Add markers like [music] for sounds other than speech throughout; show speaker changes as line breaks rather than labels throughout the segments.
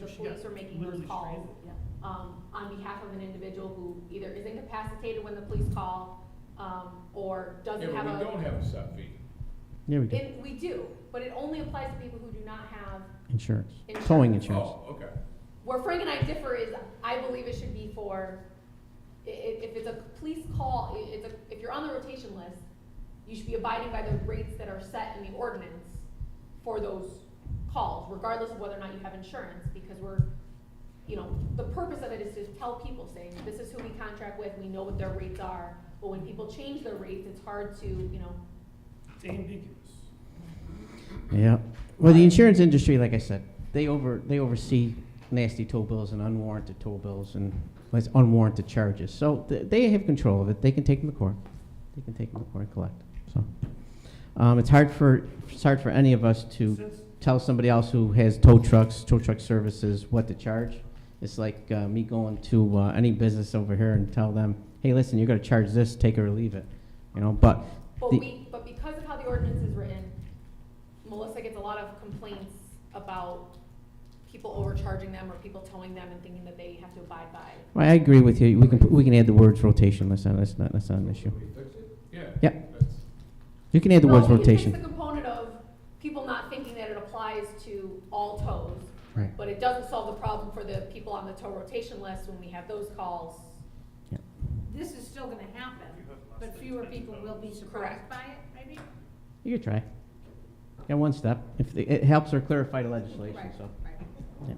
police
Yeah,
are making those
literally
calls
stranded.
um, on behalf of an individual who either is incapacitated when the police call, um, or
Yeah,
doesn't
but
have
we
a.
don't have a set fee.
There we go.
It, we do, but it only applies to people who do not have,
Insurance.
Insurance.
Towing insurance.
Oh, okay.
where Frank and I differ is, I believe it should be for, i- i- if it's a police call, i- it's a, if you're on the rotation list, you should be abiding by the rates that are set in the ordinance for those calls, regardless of whether or not you have insurance, because we're, you know, the purpose of it is to tell people, saying, this is who we contract with, we know what their rates are, but when people change their rates, it's hard to, you know,
It's ambiguous.
Yeah. Well, the insurance industry, like I said, they over, they oversee nasty tow bills and unwarranted tow bills and like unwarranted charges. So th- they have control of it. They can take them to court. They can take them to court and collect. So, um, it's hard for, it's hard for any of us to
Since,
tell somebody else who has tow trucks, tow truck services, what to charge. It's like uh, me going to uh, any business over here and tell them, hey, listen, you're going to charge this, take it or leave it. You know, but
But
The-
we, but because of how the ordinance is written, Melissa gets a lot of complaints about people overcharging them or people towing them and thinking that they have to abide by.
I I agree with you. We can, put- we can add the words rotation. That's not, that's not, that's not an issue.
Can we fix it? Yeah.
Yeah.
that's-
You can add the
No,
words
we can fix
rotation.
The component of people not thinking that it applies to all tows,
Right.
but it doesn't solve the problem for the people on the tow rotation list when we have those calls.
This is still gonna happen, but fewer people will be
Correct.
surprised by it, maybe?
You could try. Yeah, one step. If the- it helps or clarify the legislation,
Right,
so.
right.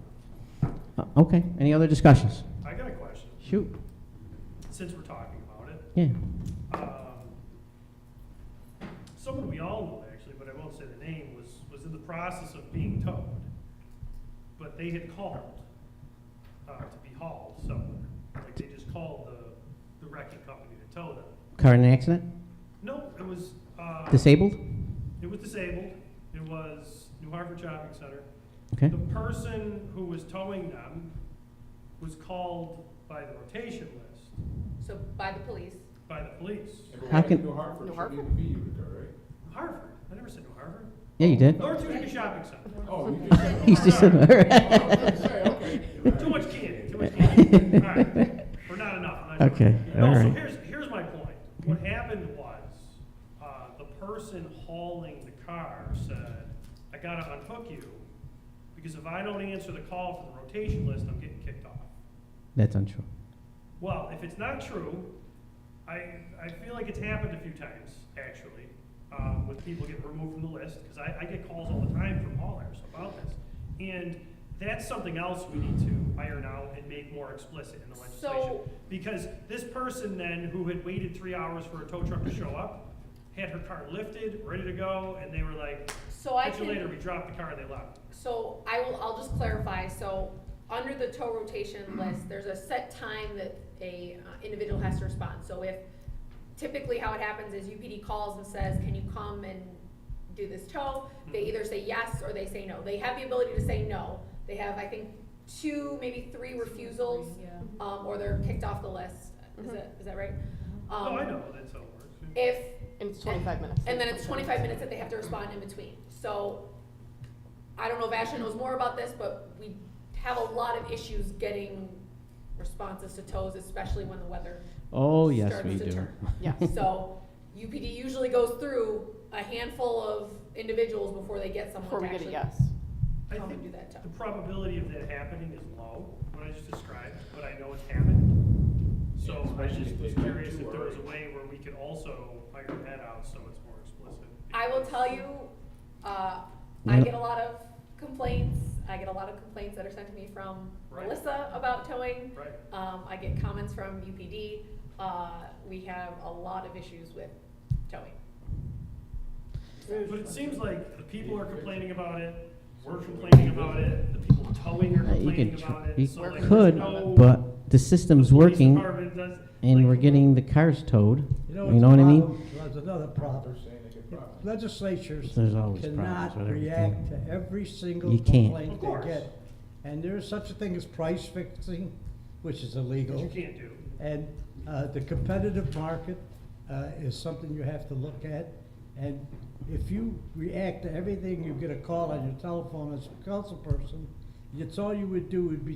Uh, Okay, any other discussions?
I got a question,
Shoot,
since we're talking about it.
yeah.
um, Someone we all know actually, but I won't say the name, was, was in the process of being towed. But they had called, uh, to be hauled somewhere. Like they just called the, the wrecking company to tow them.
Car in an accident?
No, it was, uh,
Disabled?
it was disabled. It was New Hartford Shopping Center.
Okay,
The person who was towing them was called by the rotation list,
So by the police,
by the police.
Yeah, but
How
why
can-
New Hartford
New
should
Hartford?
even be Utica, right?
Harvard, I never said New Harvard.
yeah, you did. [laughs]
North Utica Shopping Center.
[laughs]
Oh, you just said.
He's just,
Sorry.
Oh, I was gonna say, okay.
Too much candy, too much
[laughs]
candy. All right, Or not enough. I'm not sure.
Okay,
No,
all
so
right.
here's, here's my point. What happened was, uh, the person hauling the car said, I gotta unhook you, because if I don't answer the call for the rotation list, I'm getting kicked off.
That's untrue.
Well, if it's not true, I, I feel like it's happened a few times, actually, um, with people getting removed from the list, because I, I get calls all the time from haulers about this. And that's something else we need to iron out and make more explicit in the legislation.
so,
Because this person then, who had waited three hours for a tow truck to show up, had her car lifted, ready to go, and they were like,
so I
catch you
can.
later, we dropped the car, and they left.
So I will, I'll just clarify, so under the tow rotation list, there's a set time that a uh, individual has to respond. So if, typically how it happens is UPD calls and says, can you come and do this tow? They either say yes or they say no. They have the ability to say no. They have, I think, two, maybe three refusals,
Yeah.
um, or they're kicked off the list. Is that, is that right?
Oh, I
Um,
know, that's how it works.
If
And it's twenty-five minutes.
and then it's twenty-five minutes that they have to respond in between. So, I don't know if Ashley knows more about this, but we have a lot of issues getting responses to tows, especially when the
[laughs]
weather.
Oh, yes,
starts
we
to
[laughs] do.
turn.
Yeah.
So, UPD usually goes through a handful of individuals before they get someone
Before
to
we get a
actually
yes.
I
come
think
and do that tow.
The probability of that happening is low, what I just described, but I know it's happened. So I
especially
just
if
was
they do
curious
two
if there
or-
was a way where we could also iron that out so it's more explicit.
I will tell you, uh, I
Mm-hmm.
Yeah.
get a lot of complaints, I get a lot of complaints that are sent to me from
Right.
Melissa about towing.
Right,
Um, I get comments from UPD. Uh, we have a lot of issues with towing.
but it seems like the people are complaining about it, we're complaining about it, the people towing are
Uh, You
complaining
could, tr-
about it, so like. there's
you could,
no-
but the system's working and
like-
we're getting the cars towed.
You
You know what I mean?
There's another
They're
problem.
saying they could probably-
Legislatures
There's always problems
cannot
with
react
everything.
to every single
You can't.
Of
complaint
course.
they get. And there is such a thing as price fixing, which is
That you
illegal.
can't do.
And uh, the competitive market uh, is something you have to look at. And if you react to everything, you get a call on your telephone as a council person, It's all you would do would be